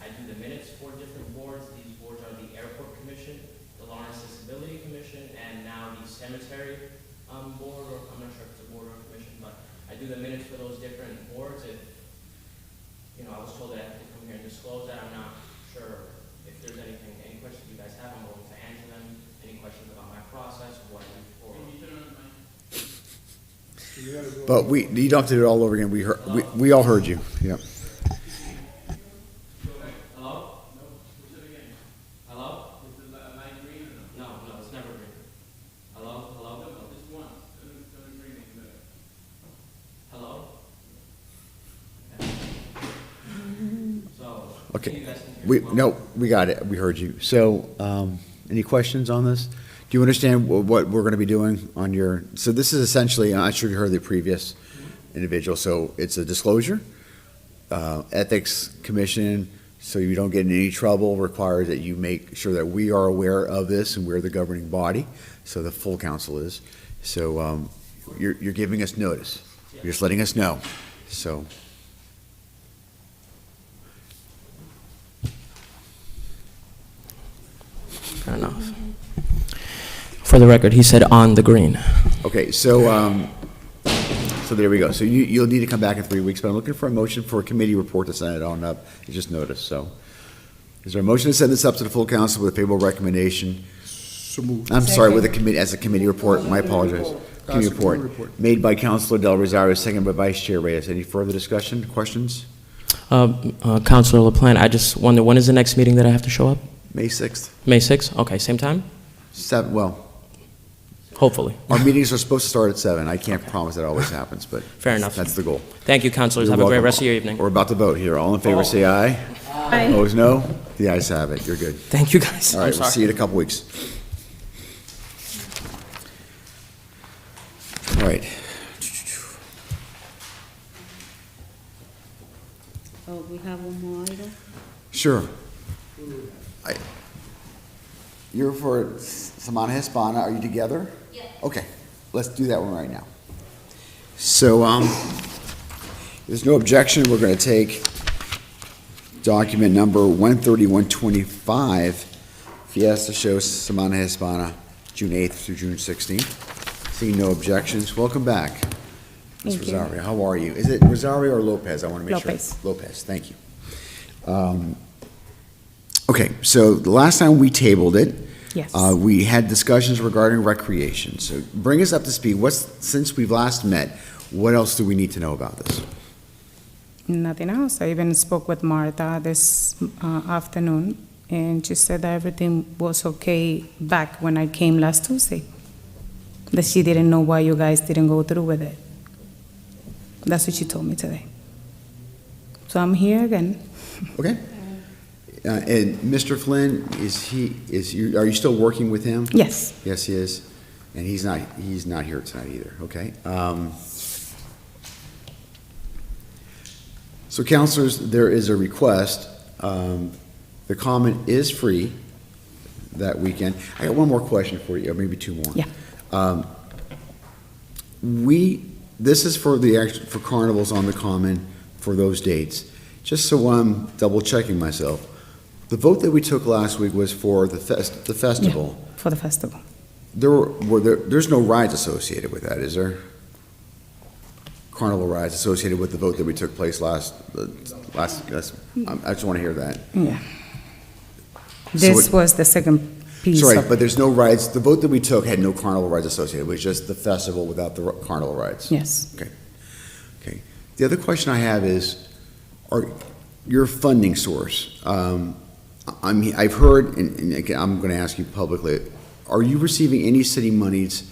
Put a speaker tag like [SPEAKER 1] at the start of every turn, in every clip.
[SPEAKER 1] I do the minutes for different boards. These boards are the Airport Commission, the Lawrence Disability Commission, and now the Cemetery um, Board, or I'm not sure if it's a board or a commission, but I do the minutes for those different boards. If, you know, I was told that I have to come here and disclose that. I'm not sure if there's anything, any questions you guys have, I'm willing to answer them. Any questions about my process, what I do for.
[SPEAKER 2] But we, you don't have to do it all over again. We heard, we, we all heard you. Yeah.
[SPEAKER 1] Hello? Hello? No, no, it's never green. Hello, hello? Hello? Okay. So.
[SPEAKER 2] Okay.
[SPEAKER 1] you guys can hear
[SPEAKER 2] We,
[SPEAKER 1] me well?
[SPEAKER 2] no, we got it. We heard you. So, um, any questions on this? Do you understand wh- what we're gonna be doing on your, so this is essentially, I'm not sure if you heard the previous individual, so it's a disclosure. Uh, Ethics Commission, so you don't get in any trouble, requires that you make sure that we are aware of this and we're the governing body, so the full council is. So, um, you're, you're giving us notice. You're just letting us know, so.
[SPEAKER 1] Fair enough. For the record, he said on the green.
[SPEAKER 2] Okay, so, um, so there we go. So you, you'll need to come back in three weeks, but I'm looking for a motion for a committee report to send it on up. It's just noticed, so. Is there a motion to send this up to the full council with a favorable recommendation? I'm sorry, with a committee, as a committee report, my apologies. Committee report, made by Councilor Del Rosario, second by Vice Chair Reyes. Any further discussion, questions?
[SPEAKER 1] Uh, Counselor LaPlante, I just wonder, when is the next meeting that I have to show up?
[SPEAKER 2] May sixth,
[SPEAKER 1] May 6th? Okay, same time?
[SPEAKER 2] seven, well,
[SPEAKER 1] Hopefully.
[SPEAKER 2] our meetings are supposed to start at seven. I can't promise that always happens, but.
[SPEAKER 1] Fair enough.
[SPEAKER 2] That's the goal.
[SPEAKER 1] Thank you, counselors.
[SPEAKER 2] You're
[SPEAKER 1] Have a great
[SPEAKER 2] welcome.
[SPEAKER 1] rest of your evening.
[SPEAKER 2] We're about to vote here. All in favor, say aye. Opposed, no? The ayes have it. You're good.
[SPEAKER 1] Thank you, guys.
[SPEAKER 2] All
[SPEAKER 1] I'm
[SPEAKER 2] right, we'll
[SPEAKER 1] sorry.
[SPEAKER 2] see you in a couple weeks. All right,
[SPEAKER 3] Oh, we have one more item?
[SPEAKER 2] sure. I- You're for S- Samana Hispana, are you together? Yeah. Okay, let's do that one right now. So, um, if there's no objection, we're gonna take document number one thirty-one twenty-five, Fiesta Show Samana Hispana, June eighth through June sixteenth. Seeing no objections, welcome back. Ms.
[SPEAKER 3] Thank you.
[SPEAKER 2] Rosario, how are you? Is it Rosario or Lopez? I want to make sure.
[SPEAKER 3] Lopez.
[SPEAKER 2] Lopez, thank you. Um, Okay, so the last time we tabled it,
[SPEAKER 3] Yes.
[SPEAKER 2] uh, we had discussions regarding recreation. So bring us up to speed. What's, since we've last met, what else do we need to know about this?
[SPEAKER 4] Nothing else. I even spoke with Martha this uh, afternoon, and she said that everything was okay back when I came last Tuesday. That she didn't know why you guys didn't go through with it. That's what she told me today. So I'm here again.
[SPEAKER 2] Okay? Uh, And Mr. Flynn, is he, is you, are you still working with him?
[SPEAKER 4] Yes.
[SPEAKER 2] Yes, he is. And he's not, he's not here tonight either, okay? Um, So counselors, there is a request. Um, The comment is free that weekend. I got one more question for you, or maybe two more.
[SPEAKER 4] Yeah.
[SPEAKER 2] Um, We, this is for the, act- for carnivals on the common for those dates. Just so I'm double checking myself, the vote that we took last week was for the fest, the festival.
[SPEAKER 4] For the festival.
[SPEAKER 2] There were, were there, there's no rides associated with that, is there? Carnival rides associated with the vote that we took place last, uh, last, that's- I'm- I just want to hear that.
[SPEAKER 4] Yeah. This
[SPEAKER 2] it-
[SPEAKER 4] was the second piece
[SPEAKER 2] Sorry,
[SPEAKER 4] of,
[SPEAKER 2] but there's no rides, the vote that we took had no carnival rides associated, it was just the festival without the ri- carnival rides.
[SPEAKER 4] yes.
[SPEAKER 2] The other question I have is, are, your funding source, um, I- I'm, I've heard, and, and again, I'm gonna ask you publicly, are you receiving any city monies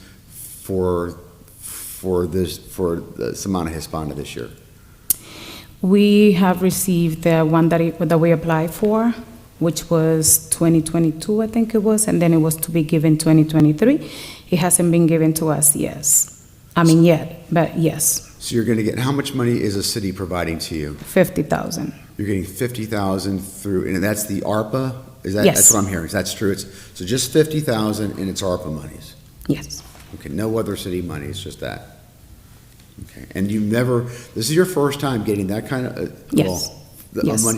[SPEAKER 2] for, for this, for the Semana Hispana this year?
[SPEAKER 4] We have received the one that, it- that we applied for, which was 2022, I think it was, and then it was to be given 2023. It hasn't been given to us, yes. I mean, yet, but yes,
[SPEAKER 2] So you're gonna get, how much money is a city providing to you?
[SPEAKER 4] 50,000.
[SPEAKER 2] You're getting fifty thousand through, and that's the ARPA? Is that,
[SPEAKER 4] Yes.
[SPEAKER 2] that's what I'm hearing, is that's true? It's, so just fifty thousand and it's ARPA monies?
[SPEAKER 4] Yes,
[SPEAKER 2] Okay, no other city money, it's just that. Okay, and you've never, this is your first time getting that kind of, uh, well,
[SPEAKER 4] Yes.
[SPEAKER 2] the- a
[SPEAKER 4] Yes.
[SPEAKER 2] money